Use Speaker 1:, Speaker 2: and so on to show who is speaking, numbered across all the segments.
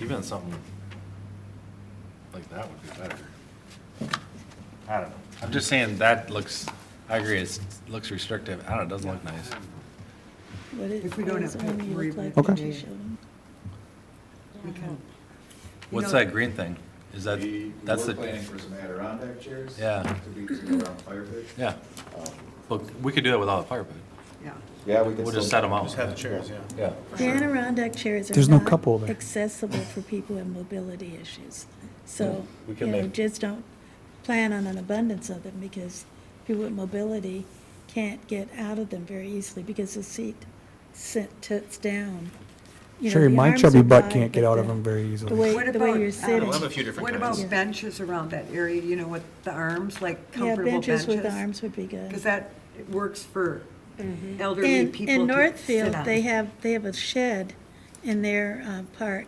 Speaker 1: Even something like that would be better. I don't know. I'm just saying that looks, I agree, it's, looks restrictive. I don't know, it doesn't look nice.
Speaker 2: What is,
Speaker 3: If we
Speaker 2: what
Speaker 3: don't
Speaker 2: does
Speaker 3: have to
Speaker 2: Omni
Speaker 3: worry
Speaker 2: look
Speaker 3: about
Speaker 2: like
Speaker 3: it.
Speaker 2: when
Speaker 3: Okay.
Speaker 2: you show them?
Speaker 3: We can-
Speaker 1: What's
Speaker 3: know-
Speaker 1: that green thing? Is that,
Speaker 4: We- we
Speaker 1: that's
Speaker 4: were
Speaker 1: the,
Speaker 4: planning for some Adirondack chairs.
Speaker 1: Yeah.
Speaker 4: To be, to go around fire pit.
Speaker 1: yeah.
Speaker 5: Um,
Speaker 1: But we could do that without a fire pit.
Speaker 3: Yeah,
Speaker 4: Yeah, we could.
Speaker 1: We'll
Speaker 4: still-
Speaker 1: just set them out.
Speaker 5: Just have the chairs, yeah.
Speaker 1: Yeah.
Speaker 2: The Adirondack chairs
Speaker 6: There's
Speaker 2: are
Speaker 6: no
Speaker 2: not
Speaker 6: cup holder.
Speaker 2: accessible for people with mobility issues. So,
Speaker 1: We
Speaker 2: you
Speaker 1: can
Speaker 2: know,
Speaker 1: make-
Speaker 2: just don't plan on an abundance of them because people with mobility can't get out of them very easily because the seat sit, tilts down. You know,
Speaker 6: Sherry,
Speaker 2: the
Speaker 6: my
Speaker 2: arms
Speaker 6: chubby
Speaker 2: are
Speaker 6: butt
Speaker 2: wide,
Speaker 6: can't get
Speaker 2: but
Speaker 6: out
Speaker 2: the-
Speaker 6: of them very easily.
Speaker 2: The way,
Speaker 3: What
Speaker 2: the way
Speaker 3: about,
Speaker 2: you're
Speaker 3: um,
Speaker 2: sitting.
Speaker 5: We'll have a few different
Speaker 3: what about
Speaker 5: kinds.
Speaker 2: Yeah.
Speaker 3: benches around that area, you know, with the arms, like
Speaker 2: Yeah,
Speaker 3: comfortable benches?
Speaker 2: benches with arms would be good.
Speaker 3: Because that works for elderly
Speaker 2: In,
Speaker 3: people
Speaker 2: in
Speaker 3: to sit
Speaker 2: Northfield,
Speaker 3: on.
Speaker 2: they have, they have a shed in their, uh, park,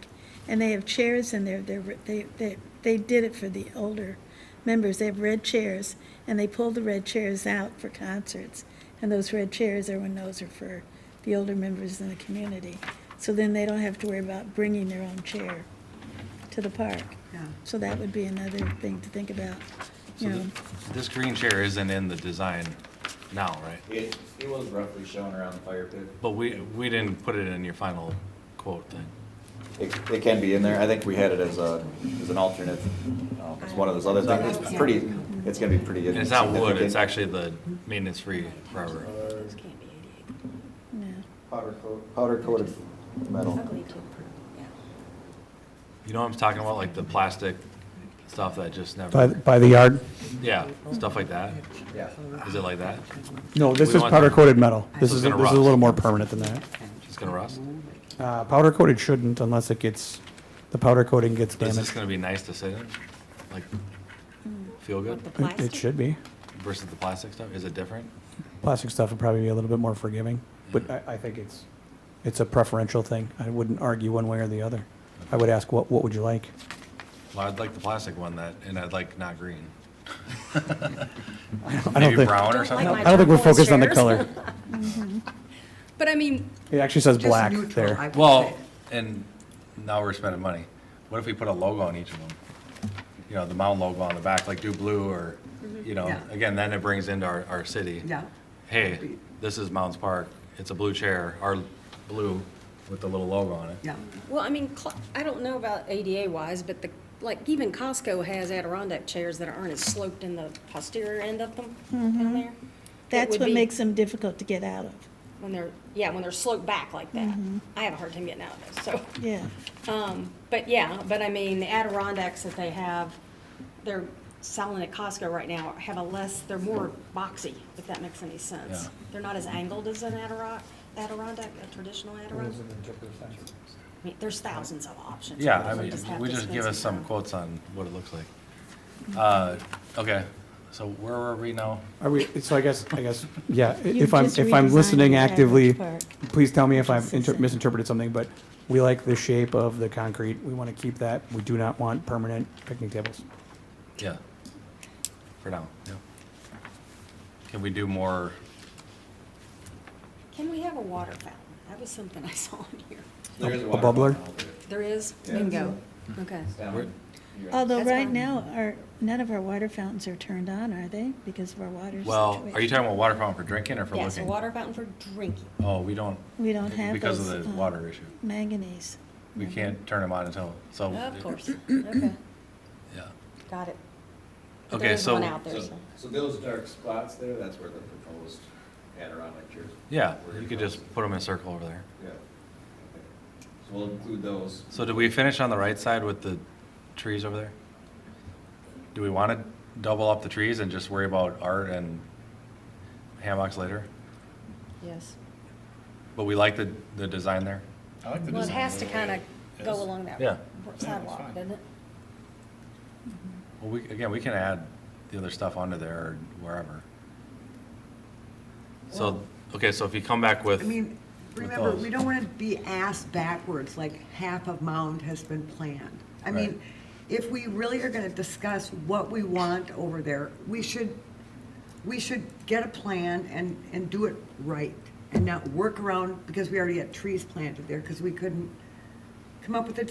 Speaker 2: and they have chairs in there, they're, they, they, they did it for the older members, they have red chairs, and they pull the red chairs out for concerts, and those red chairs, everyone knows are for the older members in the community, so then they don't have to worry about bringing their own chair to the park.
Speaker 3: Yeah.
Speaker 2: So that would be another thing to think about,
Speaker 1: So
Speaker 2: you know,
Speaker 1: th- This green chair isn't in the design now, right?
Speaker 4: It, it was roughly shown around the fire pit.
Speaker 1: But we, we didn't put it in your final quote thing.
Speaker 4: It, it can be in there. I think we had it as a, as an alternate. um, It's one of those other things. It's pretty, it's gonna be pretty.
Speaker 1: And it's not wood, it's
Speaker 4: insignificant.
Speaker 1: actually the maintenance-free rubber.
Speaker 2: yeah.
Speaker 4: Powder coat, powder coated
Speaker 2: Oh.
Speaker 4: metal.
Speaker 1: You know what I'm talking about, like the plastic stuff that just
Speaker 6: By,
Speaker 1: never,
Speaker 6: by the yard?
Speaker 1: yeah, stuff like that?
Speaker 4: Yeah.
Speaker 1: Is it like that?
Speaker 6: No, this
Speaker 1: We
Speaker 6: is
Speaker 1: want-
Speaker 6: powder coated metal. This
Speaker 1: It's
Speaker 6: is, this
Speaker 1: gonna
Speaker 6: is a little
Speaker 1: rust.
Speaker 6: more permanent than that.
Speaker 1: It's gonna rust?
Speaker 6: Uh, powder coated shouldn't unless it gets, the powder coating gets
Speaker 1: Is this
Speaker 6: damaged.
Speaker 1: gonna be nice to sit in? Like, feel good
Speaker 6: It- It should be.
Speaker 1: versus the plastic stuff? Is it different?
Speaker 6: Plastic stuff would probably be a little bit more forgiving, but
Speaker 1: Hmm.
Speaker 6: I, I think it's, it's a preferential thing. I wouldn't argue one way or the other. I would ask, what, what would you like?
Speaker 1: Well, I'd like the plastic one that, and I'd like not green.
Speaker 6: I don't
Speaker 1: Maybe
Speaker 6: think,
Speaker 1: brown or
Speaker 7: Don't
Speaker 1: something?
Speaker 7: like my
Speaker 6: I don't think we're
Speaker 7: turquoise
Speaker 6: focused on the
Speaker 7: chairs.
Speaker 6: color.
Speaker 7: But I mean,
Speaker 6: It actually says
Speaker 3: Just
Speaker 6: black
Speaker 3: neutral, I
Speaker 6: there.
Speaker 3: would
Speaker 1: Well,
Speaker 3: say.
Speaker 1: and now we're spending money. What if we put a logo on each of them? You know, the mound logo on the back, like do blue or, you know,
Speaker 3: Mm-hmm. Yeah.
Speaker 1: again, then it brings into our, our city.
Speaker 3: Yeah.
Speaker 1: Hey, this is Mounds Park. It's a blue chair, our blue with the little logo on it.
Speaker 3: Yeah,
Speaker 7: well, I mean, cl- I don't know about ADA wise, but the, like, even Costco has Adirondack chairs that aren't as sloped in the posterior end of them down there. That
Speaker 2: Mm-hmm. That's
Speaker 7: would
Speaker 2: what
Speaker 7: be
Speaker 2: makes them difficult to get out of,
Speaker 7: When they're, yeah, when they're sloped back like that.
Speaker 2: Mm-hmm.
Speaker 7: I have a hard time getting out of those, so.
Speaker 2: yeah.
Speaker 7: Um, but yeah, but I mean, the Adirondacks that they have, they're selling at Costco right now, have a less, they're more boxy, if that makes any sense.
Speaker 1: Yeah.
Speaker 7: They're not as angled as an Adiron- Adirondack, a traditional Adirondack. I mean, there's thousands of options.
Speaker 1: Yeah, I
Speaker 7: We
Speaker 1: mean,
Speaker 7: have
Speaker 1: we
Speaker 7: to
Speaker 1: just
Speaker 7: spend
Speaker 1: give us some
Speaker 7: time.
Speaker 1: quotes on what it looks like.
Speaker 3: Mm-hmm.
Speaker 1: Uh, okay, so where are we now?
Speaker 6: Are we, so I guess, I guess, yeah, i-
Speaker 2: You've
Speaker 6: if I'm,
Speaker 2: just
Speaker 6: if I'm
Speaker 2: redesigned
Speaker 6: listening
Speaker 2: the
Speaker 6: actively,
Speaker 2: Chadwick
Speaker 6: please tell me if I've
Speaker 2: Just
Speaker 6: inter-
Speaker 2: listen.
Speaker 6: misinterpreted something, but we like the shape of the concrete. We want to keep that. We do not want permanent picnic tables.
Speaker 1: Yeah, for now, yeah. Can we do more,
Speaker 7: Can we have a water fountain? That was something I saw in here.
Speaker 4: There is
Speaker 6: A
Speaker 4: water
Speaker 6: bubbler?
Speaker 4: fountain over there.
Speaker 7: There is,
Speaker 4: Yeah.
Speaker 7: bingo,
Speaker 1: Mm-hmm.
Speaker 7: okay.
Speaker 4: It's down
Speaker 1: Where-
Speaker 4: here.
Speaker 2: Although
Speaker 7: That's
Speaker 2: right
Speaker 7: fine.
Speaker 2: now, our, none of our water fountains are turned on, are they? Because of our water situation.
Speaker 1: well, are you talking about water fountain for drinking or for looking?
Speaker 7: Yes, a water fountain for drinking.
Speaker 1: Oh, we don't.
Speaker 2: We don't have
Speaker 1: Because
Speaker 2: those,
Speaker 1: of the
Speaker 2: uh,
Speaker 1: water issue.
Speaker 2: Manganese.
Speaker 1: We can't turn them on until, so.
Speaker 7: Of course, okay,
Speaker 1: Yeah.
Speaker 7: got it. But
Speaker 1: Okay,
Speaker 7: There is one
Speaker 1: so-
Speaker 7: out there,
Speaker 4: So,
Speaker 7: so.
Speaker 4: so those dark spots there, that's where the proposed Adirondack chairs.
Speaker 1: Yeah,
Speaker 4: were
Speaker 1: you could
Speaker 4: proposed.
Speaker 1: just put them in a circle over there.
Speaker 4: Yeah. Okay. So we'll include those.
Speaker 1: So did we finish on the right side with the trees over there? Do we want to double up the trees and just worry about art and hammocks later?
Speaker 7: Yes.
Speaker 1: But we like the, the design there?
Speaker 5: I like the
Speaker 7: Well, it
Speaker 5: design
Speaker 7: has to
Speaker 5: the way
Speaker 7: kind
Speaker 5: it
Speaker 7: of
Speaker 5: is.
Speaker 7: go along that
Speaker 1: Yeah.
Speaker 7: sidewalk, doesn't it?
Speaker 1: Well, we, again, we can add the other stuff onto there or wherever. So, okay, so if you come back with.
Speaker 3: I mean,
Speaker 1: With
Speaker 3: remember,
Speaker 1: those.
Speaker 3: we don't want to be asked backwards, like half of Mound has been planned. I
Speaker 1: Right.
Speaker 3: mean, if we really are going to discuss what we want over there, we should, we should get a plan and, and do it right and not work around, because we already had trees planted there, because we couldn't come up with a